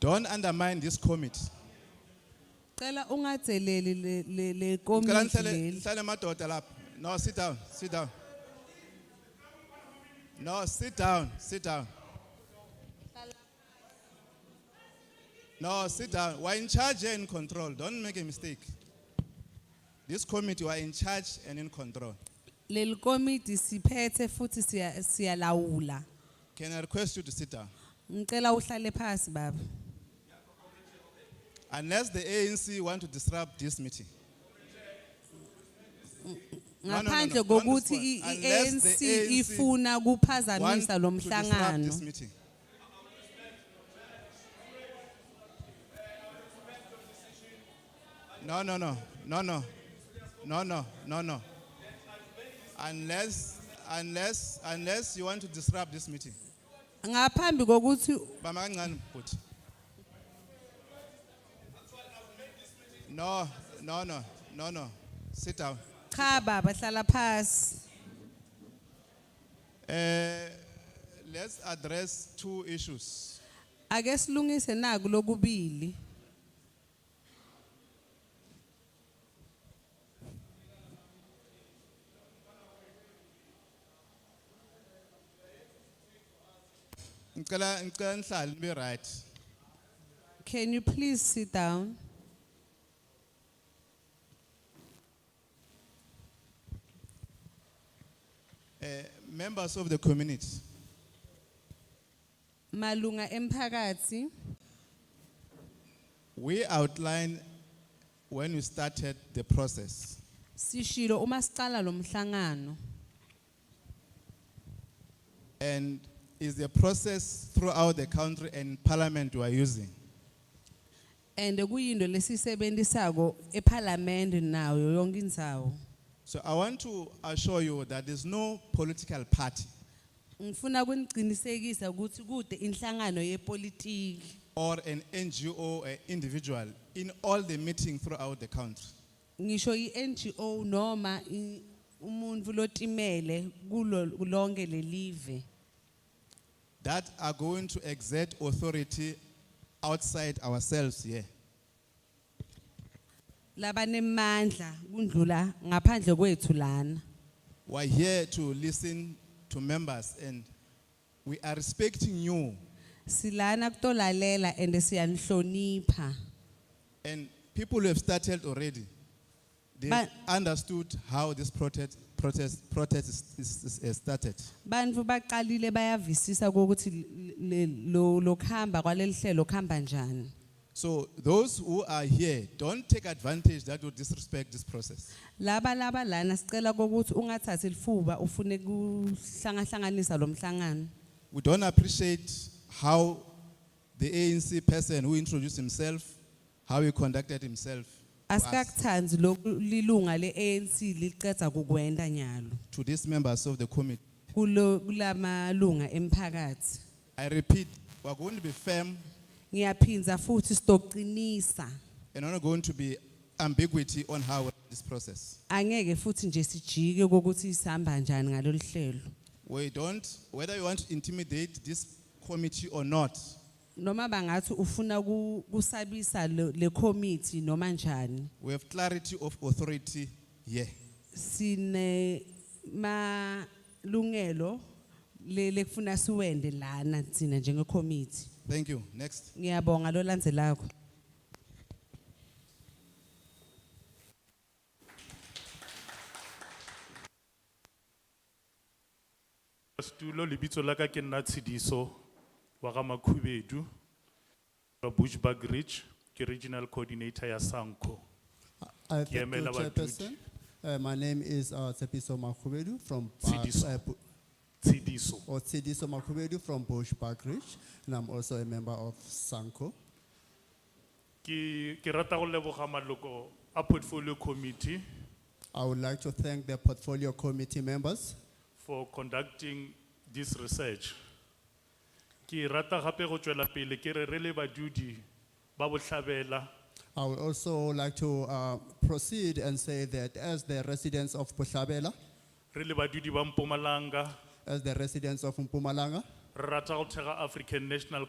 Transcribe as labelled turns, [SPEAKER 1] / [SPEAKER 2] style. [SPEAKER 1] Don't undermine this committee.
[SPEAKER 2] Cela ungadzeleli le- le le
[SPEAKER 1] Ngicela
[SPEAKER 2] committee
[SPEAKER 1] nihlale
[SPEAKER 2] leli.
[SPEAKER 1] nihlale madoda lapha. No, sit down, sit down. No, sit down, sit down. No, sit down. We're in charge and in control. Don't make a mistake. This committee, we're in charge and in control.
[SPEAKER 2] Leli committee siphethe futhi siya siyalawula.
[SPEAKER 1] Can I request you to sit down?
[SPEAKER 2] Ngicela uhlale phansi baba.
[SPEAKER 1] Unless the ANC want to disrupt this meeting. No, no, no, no.
[SPEAKER 2] Ngaphandle
[SPEAKER 1] Don't
[SPEAKER 2] kokuthi
[SPEAKER 1] respond.
[SPEAKER 2] i- i-
[SPEAKER 1] Unless the
[SPEAKER 2] ANC
[SPEAKER 1] ANC
[SPEAKER 2] ifuna
[SPEAKER 1] Want
[SPEAKER 2] kuphazamisa
[SPEAKER 1] to
[SPEAKER 2] lo
[SPEAKER 1] disrupt this
[SPEAKER 2] mhlangano.
[SPEAKER 1] meeting. No, no, no, no, no, no, no, no, no. Unless, unless, unless you want to disrupt this meeting.
[SPEAKER 2] Ngaphambi kokuthi
[SPEAKER 1] Bama kancane bhuti. No, no, no, no, no. Sit down.
[SPEAKER 2] cha baba hlala phansi.
[SPEAKER 1] Eh, let's address two issues.
[SPEAKER 2] Ake silungise naku lokubili.
[SPEAKER 1] Ngicela ngicela nihlale nibe right.
[SPEAKER 2] Can you please sit down?
[SPEAKER 1] Uh, members of the community,
[SPEAKER 2] Malunga emphakathi
[SPEAKER 1] we outlined when we started the process
[SPEAKER 2] sishilo uma sicala lo mhlangano
[SPEAKER 1] and is a process throughout the country and parliament we are using.
[SPEAKER 2] and kuyinto lesisebenzisako eParliament nayo yonke indzawo.
[SPEAKER 1] So I want to assure you that there's no political party
[SPEAKER 2] Ngifuna kunigcinisekisa ukuthi kude inhlangano yepolitiki
[SPEAKER 1] or an NGO or individual in all the meetings throughout the country.
[SPEAKER 2] ngisho iNGO noma i- umuntu lotimele kulo lonke lelive
[SPEAKER 1] that are going to exert authority outside ourselves here.
[SPEAKER 2] labanemandla kundlula ngaphandle kwethu lana.
[SPEAKER 1] We're here to listen to members and we are respecting you
[SPEAKER 2] Silana kutolalela and siyanihlonipha.
[SPEAKER 1] and people who have started already. They
[SPEAKER 2] But-
[SPEAKER 1] understood how this protest, protest, protest is, is, is- is started.
[SPEAKER 2] Bantu baqalile bayavisisa ukuthi le- le- lo lokhamba kwalelihlelo khamba njani.
[SPEAKER 1] So those who are here, don't take advantage that will disrespect this process.
[SPEAKER 2] Laba laba lana sicela ukuthi ungathathi lifuba ufune kuhlangahlanganisa lo mhlangano.
[SPEAKER 1] We don't appreciate how the ANC person who introduced himself, how he conducted himself to us.
[SPEAKER 2] Asikakuthandi lokulunga leANC licetha kukwenda nyalo.
[SPEAKER 1] to these members of the committee.
[SPEAKER 2] Kulo kulamalunga emphakathi.
[SPEAKER 1] I repeat, we're going to be firm
[SPEAKER 2] Ngiyaphindza futhi stoqinisa.
[SPEAKER 1] and we're not going to be ambiguity on how we- this process.
[SPEAKER 2] Angeke futhi nje sijike ukuthi sihamba njani ngalolihlelo.
[SPEAKER 1] We don't, whether you want to intimidate this committee or not,
[SPEAKER 2] Noma bangathi ufuna ku- kusabisa le le committee noma njani.
[SPEAKER 1] we have clarity of authority here.
[SPEAKER 2] Sine malungelo le lekufuna siwende lana sina njenge committee.
[SPEAKER 1] Thank you. Next.
[SPEAKER 2] Ngiyabonga lo landzelako.
[SPEAKER 3] Stulo lebitso la ka ke nna Tshidiso wa ga Makhubedu wa Bushbuck Ridge ke regional coordinator ya Sanko.
[SPEAKER 4] Uh,
[SPEAKER 3] Ke
[SPEAKER 4] thank you,
[SPEAKER 3] emela
[SPEAKER 4] Chairperson. Uh, my name is uh, Tsepiso Makhubedu from uh,
[SPEAKER 3] Tshidiso.
[SPEAKER 4] uh, oh, Bu-
[SPEAKER 3] Tshidiso.
[SPEAKER 4] or Tshidiso Makhubedu from Bush Park Ridge, and I'm also a member of Sanko.
[SPEAKER 3] Ke ke rata go leboga maloko a portfolio committee
[SPEAKER 4] I would like to thank the portfolio committee members
[SPEAKER 3] for conducting this research. Ke rata gape go tswela pele ke re re le badudi ba botlhabela
[SPEAKER 4] I would also like to uh, proceed and say that as the residents of Pushabela,
[SPEAKER 3] re le badudi ba Mpumalanga
[SPEAKER 4] as the residents of Mpumalanga,
[SPEAKER 3] re rata go thega African National